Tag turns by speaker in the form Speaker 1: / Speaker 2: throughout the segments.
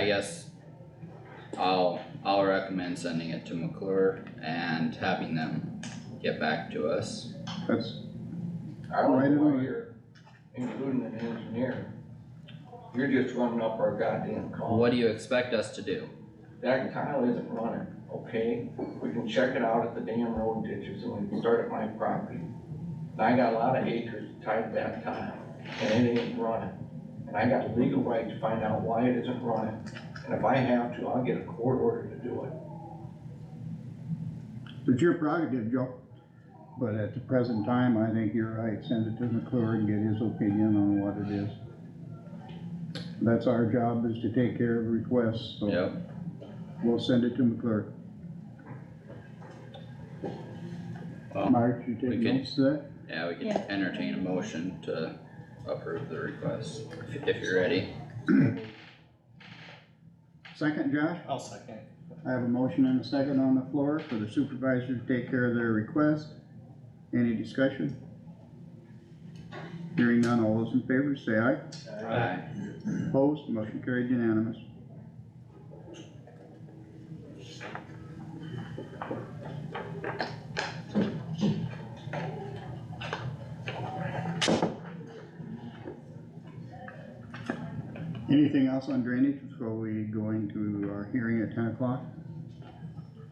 Speaker 1: I guess I'll, I'll recommend sending it to McClure and having them get back to us.
Speaker 2: That's,
Speaker 3: I don't
Speaker 2: Right
Speaker 3: know why
Speaker 2: away.
Speaker 3: you're including an engineer. You're just running up our goddamn call.
Speaker 1: What do you expect us to do?
Speaker 3: That tile isn't running, okay? We can check it out at the damn road ditches and we can start at my property. And I got a lot of acres tied to that tile and it ain't running. And I got legal right to find out why it isn't running. And if I have to, I'll get a court order to do it.
Speaker 2: it's your prerogative, Joe. But at the present time, I think you're right. Send it to McClure and get his opinion on what it is. That's our job is to take care of requests, so
Speaker 1: Yep,
Speaker 2: we'll send it to McClure.
Speaker 1: well,
Speaker 2: Marge, you
Speaker 1: we
Speaker 2: take
Speaker 1: can-
Speaker 2: notes of that?
Speaker 1: yeah, we can
Speaker 4: Yeah.
Speaker 1: entertain a motion to approve the request, if, if you're ready.
Speaker 2: Second, Josh?
Speaker 5: I'll second.
Speaker 2: I have a motion and a second on the floor for the supervisor to take care of their request. Any discussion? Hearing none, all those in favor say aye.
Speaker 1: Aye.
Speaker 2: Opposed, motion carried unanimous. Anything else on drainage before we go into our hearing at ten o'clock?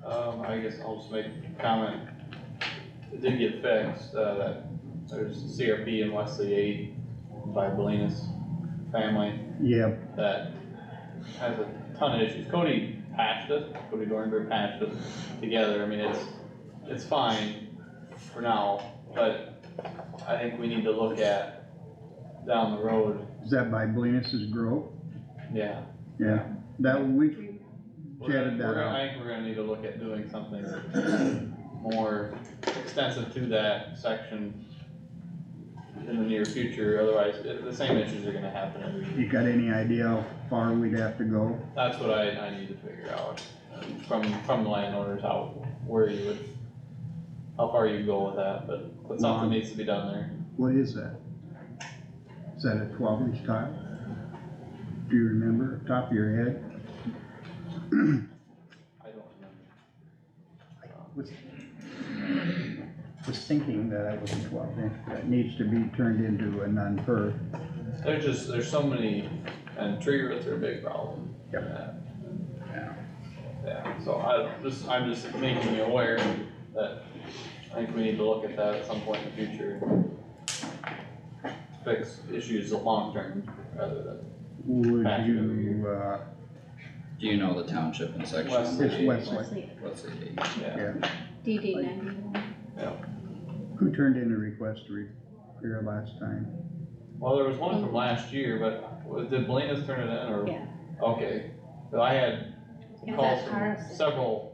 Speaker 6: Um, I guess I'll just make a comment. It did get fixed, uh, that there's CRP in Wesley eight by Belinas family
Speaker 2: Yeah,
Speaker 6: that has a ton of issues. Cody patched it, Cody Dornberg patched it together. I mean, it's, it's fine for now, but I think we need to look at down the road,
Speaker 2: is that by Blenus's Grove?
Speaker 6: yeah.
Speaker 2: Yeah, that we,
Speaker 6: We're gonna-
Speaker 2: Jetted that
Speaker 6: we're gonna-
Speaker 2: out.
Speaker 6: I think we're gonna need to look at doing something more extensive to that section in the near future, otherwise i- the same issues are gonna happen every year.
Speaker 2: you got any idea how far we'd have to go?
Speaker 6: That's what I, I need to figure out um, from, from landowners, how, where you would, how far you go with that, but, but
Speaker 2: Lawn.
Speaker 6: something needs to be done there.
Speaker 2: What is that? Is that a twelve inch tile? Do you remember, top of your head?
Speaker 6: I don't remember.
Speaker 2: Was was thinking that it was a twelve inch, that needs to be turned into a non-per.
Speaker 6: There's just, there's so many, and tree roots are a big problem.
Speaker 2: Yep.
Speaker 6: Yeah.
Speaker 1: Yeah.
Speaker 6: Yeah, so I just, I'm just making you aware that I think we need to look at that at some point in the future. Fix issues long term rather than.
Speaker 2: Would
Speaker 6: Back to
Speaker 2: you, uh,
Speaker 1: Do you know the township and section?
Speaker 6: West.
Speaker 2: it's Wesley,
Speaker 4: Wesley,
Speaker 1: What's the date?
Speaker 6: Yeah.
Speaker 2: yeah.
Speaker 4: DD ninety-one.
Speaker 2: Who turned in a request to repair last time?
Speaker 6: Well, there was one from last year, but was- did Belena's turn it in or?
Speaker 4: Yeah.
Speaker 6: Okay, so I had
Speaker 4: Yeah,
Speaker 6: calls
Speaker 4: that
Speaker 6: from
Speaker 4: ours.
Speaker 6: several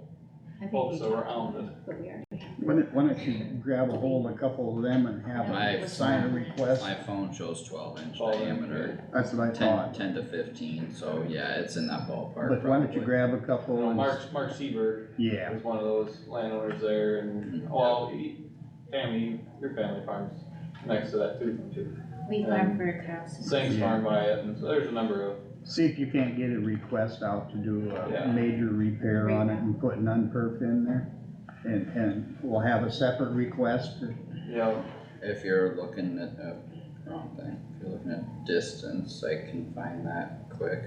Speaker 4: I think we
Speaker 6: folks
Speaker 4: talked
Speaker 6: around
Speaker 4: about
Speaker 6: it.
Speaker 4: it, but we already had
Speaker 2: Why don't, why don't you grab a hold of a couple of them and have
Speaker 1: My-
Speaker 2: them sign a request?
Speaker 1: My phone shows twelve inch
Speaker 6: 12 inch,
Speaker 1: diameter,
Speaker 2: That's what I
Speaker 1: ten,
Speaker 2: thought.
Speaker 1: ten to fifteen, so yeah, it's in that ballpark
Speaker 2: But why don't
Speaker 1: probably.
Speaker 2: you grab a couple and, s-
Speaker 6: Mark, Mark Seaver
Speaker 2: yeah,
Speaker 6: was one of those landowners there and, well, he- family, your family farms next to that too, too.
Speaker 4: We
Speaker 6: Um,
Speaker 4: farm for a house.
Speaker 6: Sings
Speaker 2: Yeah.
Speaker 6: farm by it, and so there's a number of,
Speaker 2: see if you can't get a request out to do a
Speaker 6: Yeah.
Speaker 2: major repair on it and put an unperf in there. And, and we'll have a separate request,
Speaker 6: you know,
Speaker 1: If you're looking at, uh, wrong thing, if you're looking at distance, I can find that quick.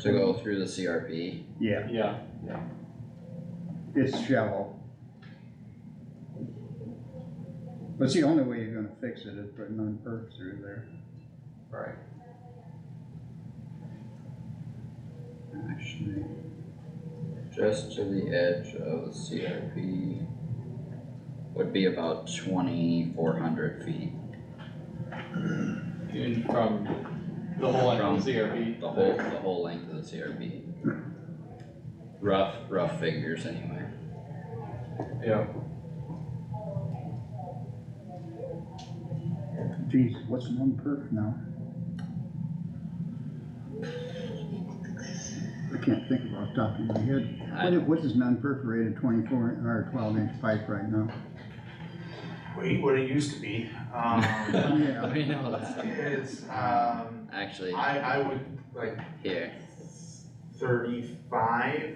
Speaker 1: To go through the CRP,
Speaker 2: yeah,
Speaker 6: yeah,
Speaker 2: it's shallow. But it's the only way you're gonna fix it is putting unperf through there.
Speaker 6: right.
Speaker 1: actually, just to the edge of the CRP would be about twenty-four hundred feet,
Speaker 6: Even from the whole
Speaker 1: Mm-hmm.
Speaker 6: end
Speaker 1: From
Speaker 6: of the CRP.
Speaker 1: the whole, the whole length of the CRP. Rough, rough figures anyway.
Speaker 6: Yeah,
Speaker 2: Geez, what's an unperf now? I can't think about top of my head. What
Speaker 1: I,
Speaker 2: is, what is an unperforated twenty-four or twelve inch pipe right now?
Speaker 7: Wait, what it used to be. Um,
Speaker 2: Yeah.
Speaker 1: I know that,
Speaker 7: it's, um,
Speaker 1: actually,
Speaker 7: I, I would, like,
Speaker 1: here,
Speaker 3: thirty-five